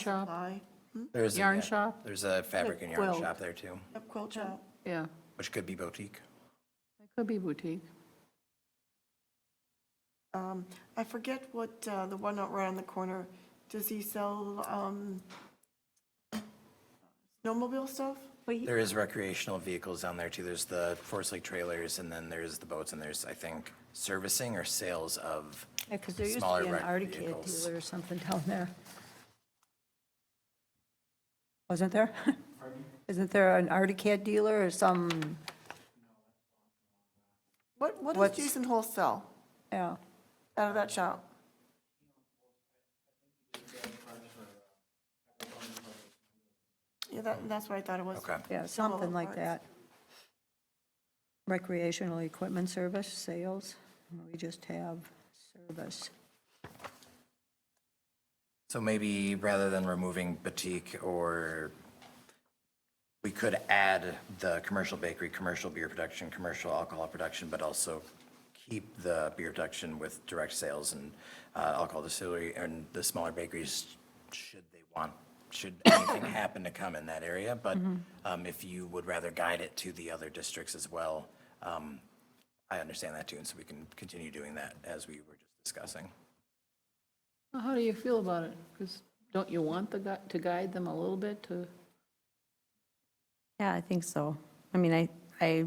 shop, Supply, There's a- Yarn yeah, shop? There's a fabric and yarn Quilt. shop there too, yep, quilt shop. yeah. which could be boutique. It could be boutique. Um, I forget what, uh, the one out right on the corner, does he sell, um, snowmobile stuff? There is recreational vehicles down there too. There's the Forest Lake trailers and then there's the boats and there's, I think, servicing or sales of Because there used to Smaller be an wrecked Arctic vehicles. dealer or something down there. Wasn't there? Isn't there an Arctic dealer or some, What, what does What's- Jason Hole sell yeah, out of that shop? Yeah, that, that's what I thought it was. Okay. yeah, Some of something them like aren't. that. Recreational equipment service, sales, we just have service. So maybe rather than removing boutique or, we could add the commercial bakery, commercial beer production, commercial alcohol production, but also keep the beer production with direct sales and uh, alcohol distillery and the smaller bakeries, should they want, should anything happen to come in that area. But um, if you would rather guide it to the other districts as well, um, I understand that too, and so we can continue doing that as we were just discussing. Well, How do you feel about it? Because don't you want the, gui- to guide them a little bit to, Yeah, I think so. I mean, I, I,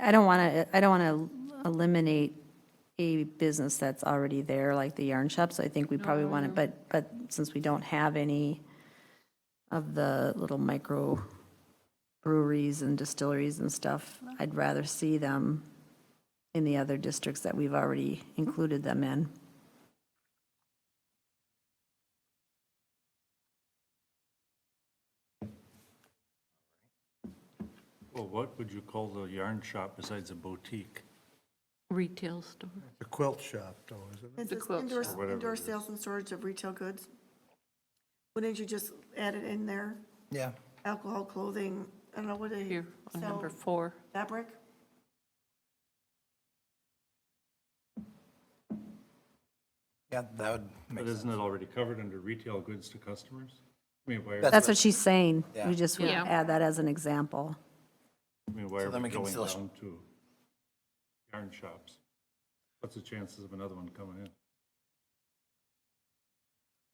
I don't want to, I don't want to eliminate a business that's already there, like the yarn shop, so I think we probably want to, but, but since we don't have any of the little micro breweries and distilleries and stuff, I'd rather see them in the other districts that we've already included them in. Well, what would you call the yarn shop besides a boutique? retail store? The quilt shop, though, isn't it? It The says quilt indoor- shop. Or whatever Indoor it is. sales and storage of retail goods. Wouldn't you just add it in there? Yeah. Alcohol, clothing, I don't know, what do you Here, on number sell? four. Fabric? Yeah, that would make But sense. isn't it already covered under retail goods to customers? I mean, why, are- That's what she's saying. Yeah. We just would Yeah. add that as an example. I mean, why So are then we we can going still- down to yarn shops? What's the chances of another one coming in?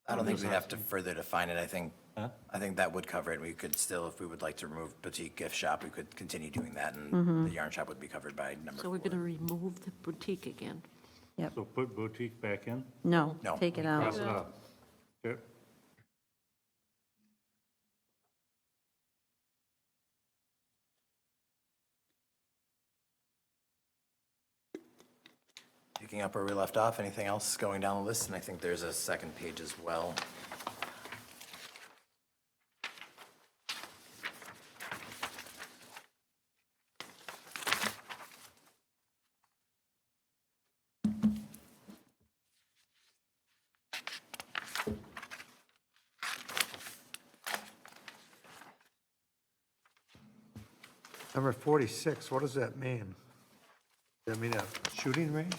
I don't think we'd have to further define it, I think, Huh? I think that would cover it. We could still, if we would like to remove boutique gift shop, we could continue doing that, and the yarn shop would be covered by number So we're four. going to remove the boutique again. So put boutique back in, uh, No, No. take it out. cross it out. Okay. Picking up where we left off, anything else going down the list? And I think there's a second page as well. Number 46, what does that mean? Does that mean a shooting range?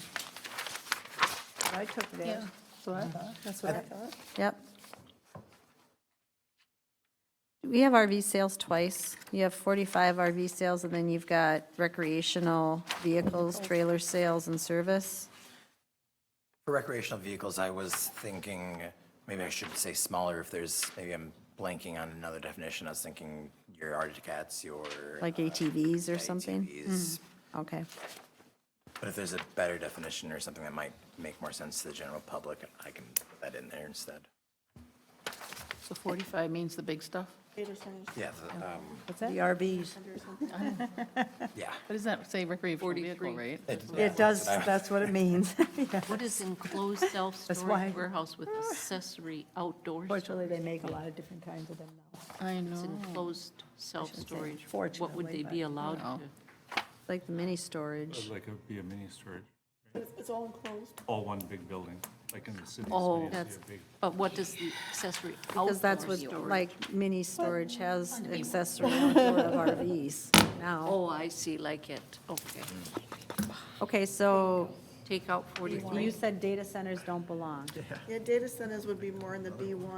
I took it as, So I thought, that's what I thought. Yep. We have RV sales twice. You have 45 RV sales, and then you've got recreational vehicles, trailer sales, and service. For recreational vehicles, I was thinking, maybe I should say smaller if there's, maybe I'm blanking on another definition. I was thinking your Arctic Cats, your. Like uh, ATVs or something? Mm-hmm. ATVs. Okay. But if there's a better definition or something that might make more sense to the general public, I can put that in there instead. so 45 means the big stuff? Yeah, the, um, The RVs. yeah. But doesn't that say recreational vehicle, right? It does, that's what it means. What is enclosed why- self-storage warehouse with accessory outdoor? Fortunately, they make a lot of different kinds of them now. I It's know. enclosed self-storage. What would fortunately, they be but- allowed to? Like the mini It's storage. Like it would be a mini storage, It's all enclosed. all one big building, like in the city. Oh. That's- But what does the accessory outdoor Because that's storage? what, like, mini storage has accessory outdoor of RVs now. Oh, I see, like it, okay. Okay, so Take out 43. you said data centers don't belong. Yeah, data centers would be more in the B1.